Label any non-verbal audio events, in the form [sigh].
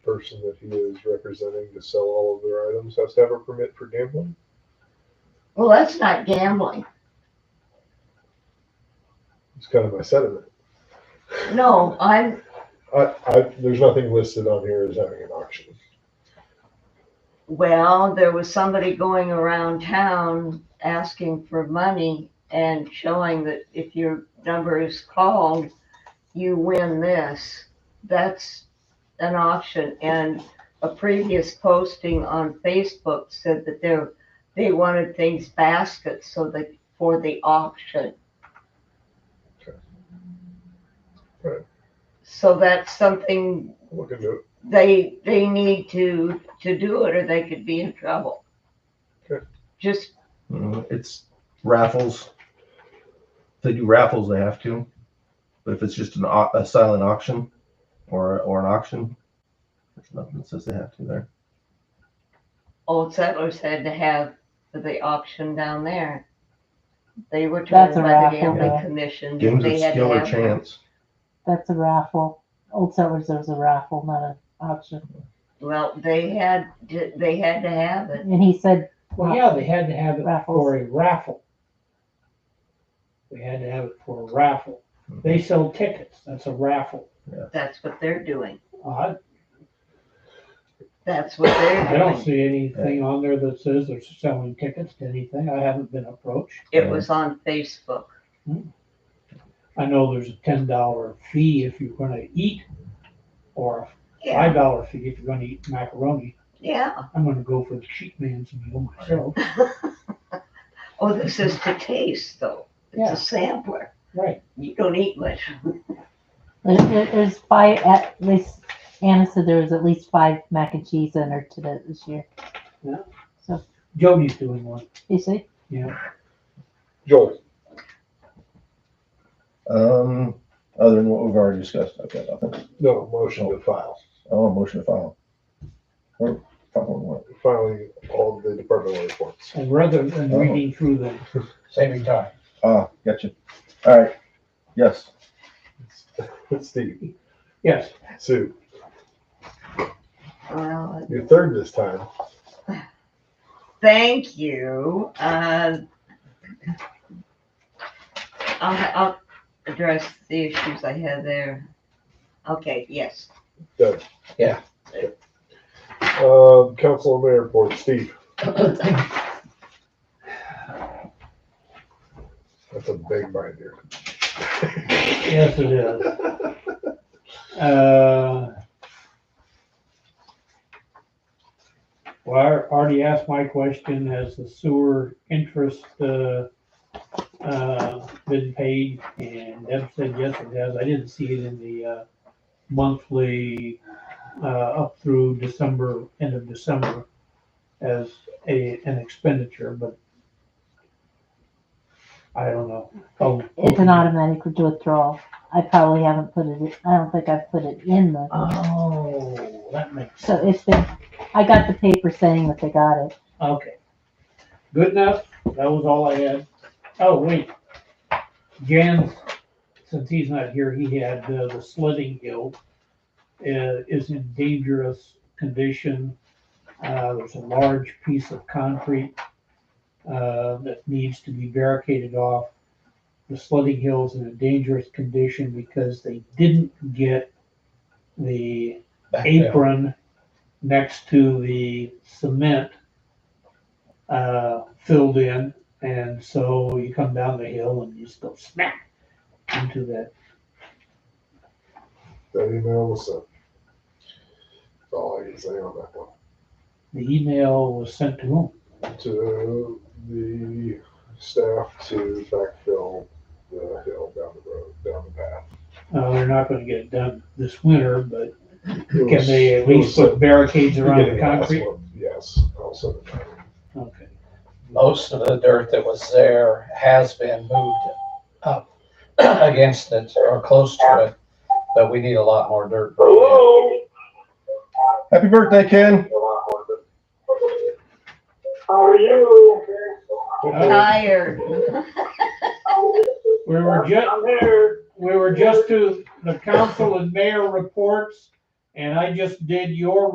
person that he is representing to sell all of their items has to have a permit for gambling? Well, that's not gambling. It's kind of my sentiment. No, I'm, I, I, there's nothing listed on here as having an auction. well, there was somebody going around town asking for money and showing that if your number is called, you win this. That's an auction and a previous posting on Facebook said that they're, they wanted things baskets so that, for the auction. Okay. Right. So that's something Look into it. they they need to to do it or they could be in trouble. Sure. Just Mm, It's raffles. If they do raffles, they have to. But if it's just an, au- a silent auction or, or an auction, there's nothing that says they have to there. old settlers had to have the auction down there. They were told That's a by the raffle, gambling yeah. commission. that Games of they had to skill or have- chance. That's a raffle. Old settlers, there's a raffle, not an auction. Well, they had to, they had to have it. And he said, Well, yeah, they had to have it Raffles. for a raffle. We had to have it for a raffle. They sell tickets, that's a raffle. That's what they're doing. I, That's what they're I don't doing. see anything on there that says they're selling tickets to anything. I haven't been approached. It was on Facebook. I know there's a ten dollar fee if you're gonna eat, or a Yeah, five dollar fee if you're gonna eat macaroni. yeah. I'm gonna go for the cheap man's meal myself. Oh, this is to taste though. It's Yeah. a sampler. Right, You don't eat much. there- there- there's five, at least, Anna said there was at least five mac and cheese in her today this year. Jody's doing one, You see? yeah. Joel, Um, other than what we've already discussed, I've got nothing. no, motion to file. Oh, a motion to file. Or file on what? Filing all of the departmental reports. [laughs] And rather than Oh. reading through them, saving time. Ah, gotcha. All right. Yes. Steve, yes, Sue, Well, you're third this time. Thank you. Uh, I'll, I'll address the issues I had there. Okay, yes. Doug. Yeah. Um, council and mayor report, Steve. That's a big binder. Yes, it is. [laughs] Uh, Well, I already asked my question, has the sewer interest, uh, uh, been paid? And Deb said, yes, it has. I didn't see it in the, uh, monthly, uh, up through December, end of December as a, an expenditure, but I don't know. Oh, It's an automatic withdrawal. I probably haven't put it, in- I don't think I've put it in the, Uh. Oh, that makes so sense. it's been, I got the paper saying that they got it. Okay. Good enough. That was all I had. Oh, wait. Jan, since he's not here, he had uh, the sledding guild uh, is in dangerous condition. Uh, there's a large piece of concrete uh, that needs to be barricaded off. The sledding hill's in a dangerous condition because they didn't get the Back down. apron next to the cement uh, filled in, and so you come down the hill and you just go smack into that. That email was sent. That's all I can say on that one. The email was sent to whom? To the staff to backfill the hill down the road, down the path. Uh, they're not going to get it done this winter, but It can was- they it at was least put sent- barricades around beginning the of last concrete? month. Yes, I'll send it back. Okay. Most of the dirt that was there has been moved up [clears throat] against it or close to it, but we need a lot more dirt. Happy birthday, Ken. Tired. We were just, we were just to the council and mayor reports, and I just did your